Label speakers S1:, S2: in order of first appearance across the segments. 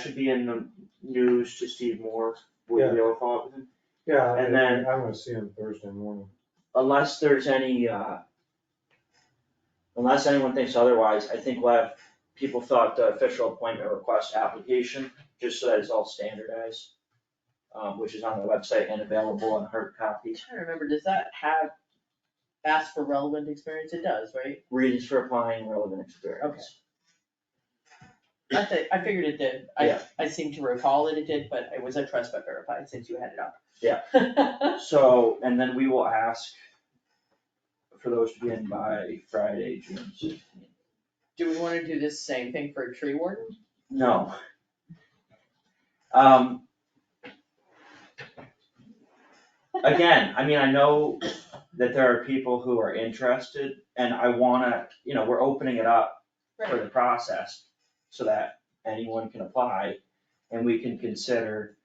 S1: should be in the news to Steve Moore, would you be able to follow up with him?
S2: Yeah,
S1: And
S2: and
S1: then-
S2: then I'm gonna see him Thursday morning.
S1: Unless there's any, uh, unless anyone thinks otherwise, I think we'll have people fill out the official appointment request application, just so that it's all standardized, um, which is on the website and available in hard
S3: I'm
S1: copy.
S3: trying to remember, does that have, ask for relevant experience? It does, right?
S1: Reasons for applying, relevant experience.
S3: I thi- I figured it did. I,
S1: Yeah.
S3: I seem to recall that it did, but it was a trust but verified since you had it up.
S1: Yeah.
S3: Yeah.
S1: So, and then we will ask for those to be in by Friday, June sixteenth.
S3: Do we wanna do this same thing for a tree warden?
S1: No. Um. Again, I mean, I know that there are people who are interested and I wanna, you know, we're opening it up for the process so that anyone can apply and we can consider.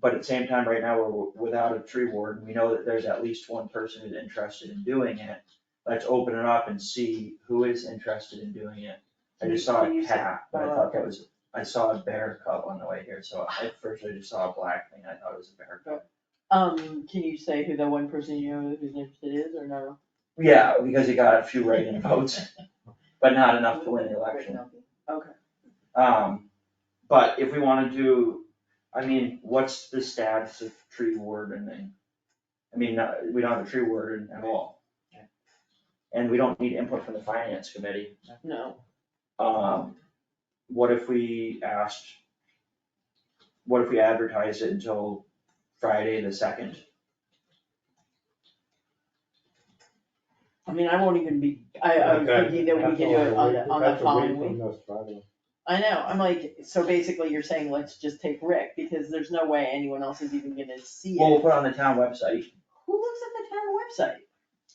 S1: But at the same time, right now, we're without a tree warden. We know that there's at least one person who's interested in doing it. Let's open it up and see who is interested in doing it. I just saw
S3: Can you
S1: a
S3: say-
S1: cat, but I
S3: Oh,
S1: thought
S3: okay.
S1: that was, I saw a bear cub on the way here, so at first I just saw a black thing. I thought it was a bear cub.
S3: Um, can you say who the one person you know who's interested is or no?
S1: Yeah, because he got a few write-in votes, but not enough to win the election.
S3: Okay.
S1: Um, but if we wanna do, I mean, what's the status of tree wardening? I mean, uh, we don't have a tree warden at all.
S3: Right.
S1: And we don't need input from the finance committee.
S3: No,
S1: Um, what if we asked? What if we advertise it until Friday the second?
S3: I mean, I won't even be, I, I was thinking that we can do it on the, on the following week. I know, I'm like, so basically you're saying, let's just take Rick, because there's no way anyone else is even gonna see
S1: Well, we'll
S3: it.
S1: put it on the town website.
S3: Who looks at the town website?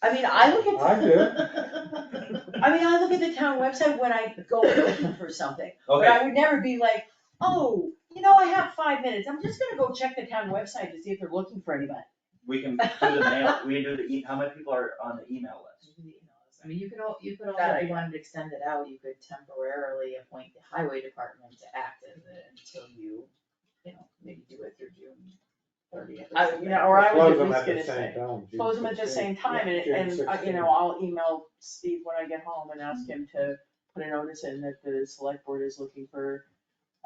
S3: I mean, I look at.
S2: I do.
S3: I mean, I look at the town website when I go looking for something, but
S1: Okay,
S3: I would never be like, oh, you know, I have five minutes, I'm just gonna go check the town website to see if they're looking for anybody.
S1: we can do the mail, we can do the, e- how many people are on the email list?
S4: I mean, you could all, you could all,
S3: That
S4: if
S3: I-
S4: you wanted to extend it out, you could temporarily appoint the highway department to act as it until you, you know, maybe do it through June thirtieth.
S3: I, you know, or I was at least gonna say,
S2: say,
S3: close them at the same time, and, and, uh, you know, I'll email Steve when I get home and ask him to put a notice in that the select board is looking for,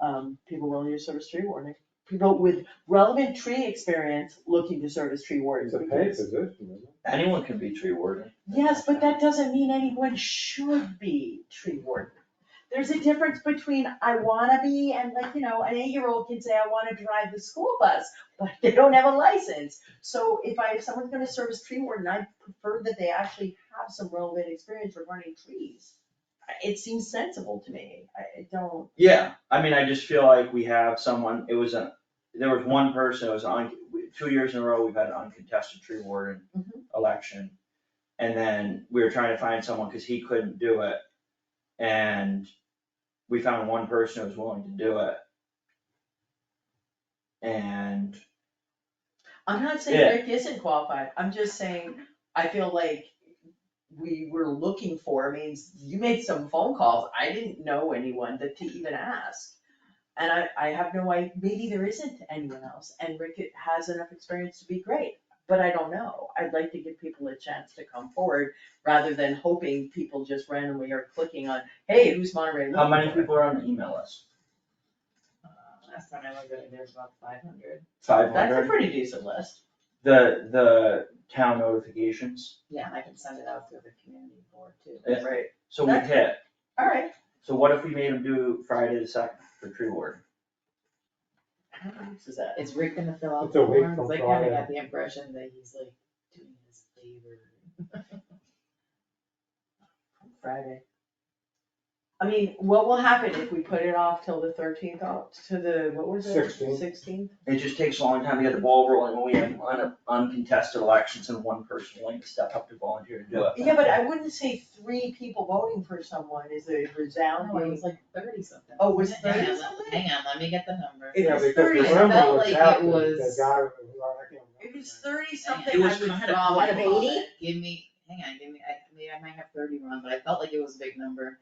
S3: um, people willing to serve as tree warden. People with relevant tree experience looking to serve as tree wardens.
S2: It's a paid
S3: because-
S2: position, isn't it?
S1: Anyone can be tree warden.
S3: Yes, but that doesn't mean anyone should be tree warden. There's a difference between I wanna be and like, you know, an eight-year-old can say, I wanna drive the school bus, but they don't have a license. So if I, if someone's gonna serve as tree warden, I prefer that they actually have some relevant experience regarding trees. I- It seems sensible to me. I I don't,
S1: Yeah, I mean, I just feel like we have someone, it was a, there was one person, it was on, two years in a row, we've had an uncontested tree warden
S3: Mhm.
S1: election. And then we were trying to find someone, cause he couldn't do it, and we found one person who was willing to do it. And,
S3: I'm not
S1: Yeah.
S3: saying Rick isn't qualified. I'm just saying, I feel like we were looking for, means you made some phone calls. I didn't know anyone that to even ask. And I, I have no idea, maybe there isn't anyone else and Rick has enough experience to be great, but I don't know. I'd like to give people a chance to come forward rather than hoping people just randomly are clicking on, hey, who's Monterey
S1: how many
S3: looking for?"
S1: people are on the email list?
S4: Uh, Last time I looked at it, there's about five hundred.
S1: Five
S3: That's a
S1: hundred,
S3: pretty decent list.
S1: the, the town notifications,
S4: Yeah, and I can send it out through the community board too.
S1: Yeah.
S3: Right.
S1: so we
S3: That's-
S1: hit,
S3: All right.
S1: so what if we made them do Friday the second for tree warden?
S3: How many weeks is that?
S4: Is Rick gonna fill out
S2: It's a
S4: the
S2: week
S4: forms?
S2: from
S4: I kinda
S2: Friday.
S4: got the impression that he's like doing his favor.
S3: Friday. I mean, what will happen if we put it off till the thirteenth, to the, what was it?
S2: 16th.
S3: Sixteenth?
S1: It just takes a long time to get the ball rolling when we have un- uncontested elections and one person willing to step up to volunteer to do it.
S3: Yeah, but I wouldn't say three people voting for someone is a
S4: No, it
S3: resounding,
S4: was like thirty something.
S3: Oh, was it
S4: Hang on,
S3: 30
S4: let-
S3: something?
S4: Hang on, let me get the number.
S3: It
S2: Yeah,
S3: was
S2: because
S3: 30.
S2: the
S3: It
S2: rumor
S4: felt
S2: was
S4: like it
S2: out that the
S4: was-
S2: guy, I can't remember.
S3: it was thirty
S4: It
S3: something, I
S1: was
S3: would
S1: kind of
S3: draw
S4: Out
S3: my
S4: of
S3: ball.
S4: eighty? Give me, hang on, give me, I, maybe I might have thirty wrong, but I felt like it was a big number.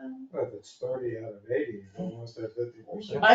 S4: Um,
S2: But if it's thirty out of eighty, almost at fifty percent.